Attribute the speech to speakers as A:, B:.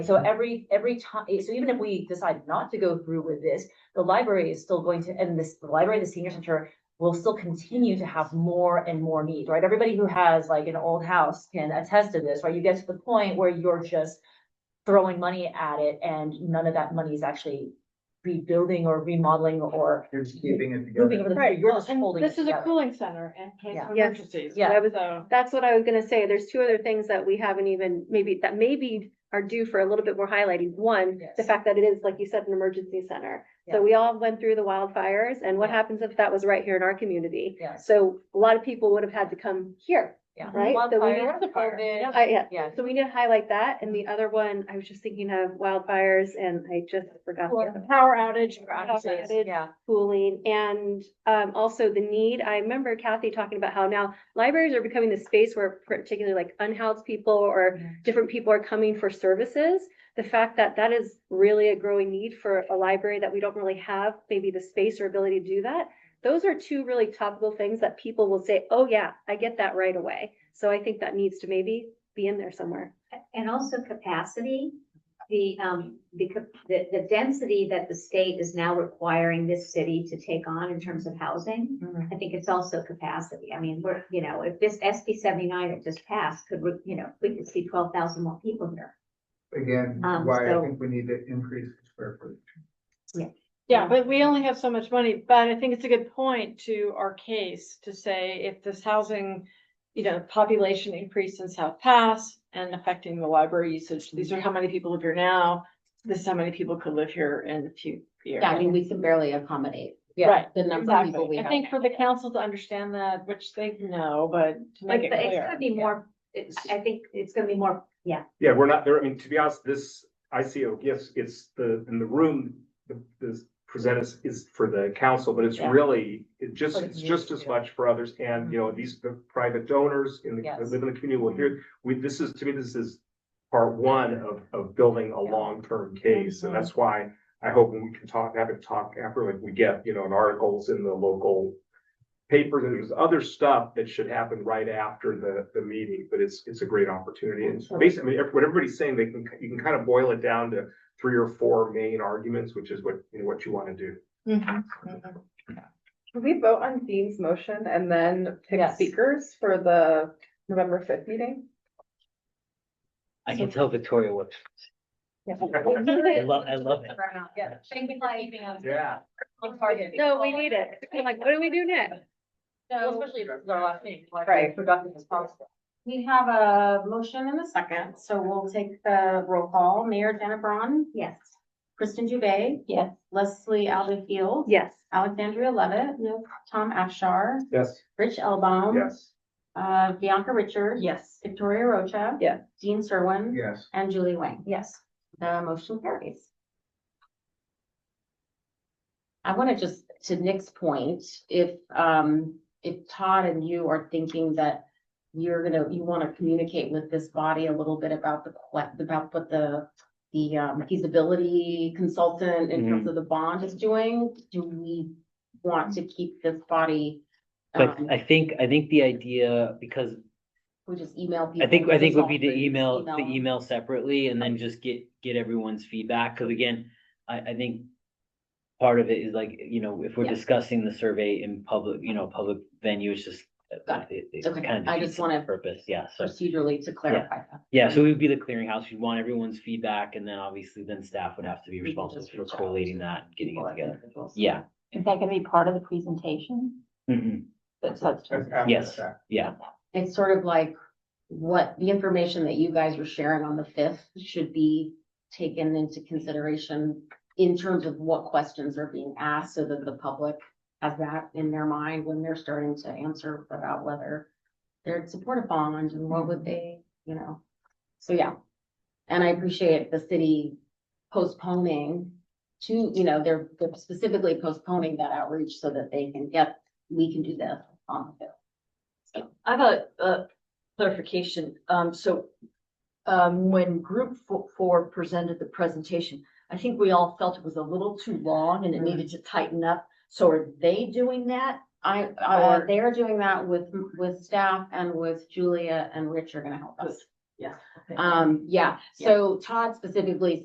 A: So every, every time, so even if we decide not to go through with this, the library is still going to, and this, the library, the senior center will still continue to have more and more needs, right? Everybody who has like an old house can attest to this, right? You get to the point where you're just throwing money at it and none of that money is actually rebuilding or remodeling or
B: You're just keeping it
A: moving over
B: together.
A: the, future. you're just holding.
C: This
A: it
C: is a
A: together.
C: cooling center and case
A: Yeah.
C: of
D: Yes.
C: emergencies.
A: Yeah.
D: That was-
C: So,
D: That's what I was gonna say. There's two other things that we haven't even, maybe, that maybe are due for a little bit more highlighting. One, the
A: Yes.
D: fact that it is, like you said, an emergency center.
A: Yeah.
D: So we all went through the wildfires and what
A: Yeah.
D: happens if that was right here in our community?
A: Yes.
D: So a lot of people would have had to come here.
A: Yeah.
D: Right? So we
A: Wildfire,
C: need-
A: COVID,
D: I, yeah.
A: Yeah.
D: So we need to highlight that. And the other one, I was just thinking of wildfires and I just forgot. the
C: Well,
D: other-
C: the power outage.
A: for offices,
D: outage.
A: Yeah,
D: cooling and um also the need, I remember Kathy talking about how now libraries are becoming the space where particularly like unhoused people or
A: Mhm.
D: different people are coming for services. The fact that that is really a growing need for a library that we don't really have maybe the space or ability to do that. Those are two really topical things that people will say, oh yeah, I get that right away. So I think that needs to maybe be in there somewhere.
E: And also capacity, the, um, the, cap- the, the density that the state is now requiring this city to take on in terms of housing.
A: Mhm.
F: Mm-hmm.
E: I think it's also capacity. I mean, we're, you know, if this SB seventy-nine that just passed could, re- you know, we could see twelve thousand more people here.
B: Again,
E: Um,
B: why I
E: so-
B: think we need to increase the square footage.
C: Yeah, but we only have so much money, but I think it's a good point to our case to say if this housing, you know, population increase in South Pass and affecting the library usage, these are how many people live here now. This is how many people could live here in the few years.
F: Yeah, I mean, we can barely accommodate
A: yeah.
C: Right,
F: the number of people
C: exactly.
F: we
C: I
F: have.
C: think for the council to understand that, which they know, but to
E: But
C: make
E: but
C: it
E: it's
C: clear.
E: gonna be more, it's, I think it's gonna be more, yeah,
G: Yeah, we're not there. I mean, to be honest, this ICO, yes, it's the, in the room, the, this present is, is for the council, but it's
C: Yeah.
G: really, it just,
A: For the
G: it's just as
A: community,
G: much for others. And, you know, these, the private donors in the, that
A: Yes.
G: live in the community will hear, we, this is, to me, this is part one of, of building a
A: Yeah.
G: long-term case.
C: Mhm.
G: And that's why I hope when we can talk, have a talk after, like, we get, you know, an articles in the local papers and there's other stuff that should happen right after the, the meeting, but it's, it's a great opportunity. And basically, I mean, what everybody's saying, they can, you can kind of boil it down to three or four main arguments, which is what, you know, what you want to do.
C: Mhm.
H: Can we vote on Dean's motion and then pick
A: Yes.
H: speakers for the November fifth meeting?
I: I can tell Victoria what, I love, I love it.
A: Yeah.
E: Thank you for keeping
G: Yeah.
D: No, we need it. I'm like, what do we do next?
A: Well, Especially if it's our last name, like,
H: Right.
A: productive as possible.
C: We have a motion and a second, so we'll take the roll call. Mayor Dennebraun,
E: yes.
C: Kristen Dubé. Yes. Leslie Alda Field.
D: Yes.
C: Alexandria Levitt. No. Tom Afshar.
G: Yes.
C: Rich Elbaum.
G: Yes.
C: Uh, Bianca Richard. Yes. Victoria Rocha.
H: Yeah.
C: Dean Serwin.
B: Yes.
C: And Julie Wang.
A: Yes.
C: The motion carries.
F: I want to just, to Nick's point, if, um, if Todd and you are thinking that you're gonna, you want to communicate with this body a little bit about the, que- about what the, the um, feasibility consultant in
I: Mm-hmm.
F: terms of the bond is doing, do we want to keep this body?
I: But
F: um,
I: I think, I think the idea, because
F: We just email people.
I: I think, I think would be to e-
F: resolve it,
I: email, the email separately and then just get, get everyone's feedback. Cause again, I, I think part of it is like, you know, if we're
F: Yeah.
I: discussing the survey in public, you know, public venue, it's just uh,
F: Got
I: it- it
F: Okay,
I: kind of
F: I
I: defeats
F: just wanna-
I: the Purpose, yeah, so.
F: Procedurally to clarify that.
I: Yeah, so we would be the clearinghouse. We'd want everyone's feedback and then obviously then staff would have to be
F: We can
I: responsible
F: just
I: for
F: reach out
I: collating
F: to
I: that, and getting
F: people
I: it
F: as
I: together.
F: individuals.
I: Yeah.
C: Is that gonna be part of the presentation?
I: Mhm.
B: That's after
I: Yes.
B: the fact.
I: Yeah,
F: It's sort of like what the information that you guys were sharing on the fifth should be taken into consideration in terms of what questions are being asked so that the public has that in their mind when they're starting to answer about whether they're support a bond and what would they, you know? So, yeah. And I appreciate the city postponing to, you know, they're they're specifically postponing that outreach so that they can get, we can do this on the fifth.
J: I have a, a clarification. Um, so, um, when group fo- four presented the presentation, I think we all felt it was a little too long
A: Mm-hmm.
J: and it needed to tighten up. So are they doing that?
F: I, uh,
J: Or-
F: they're doing that with, with staff and with Julia and Rich are gonna help us.
J: Yes.
F: Um, yeah, so Todd specifically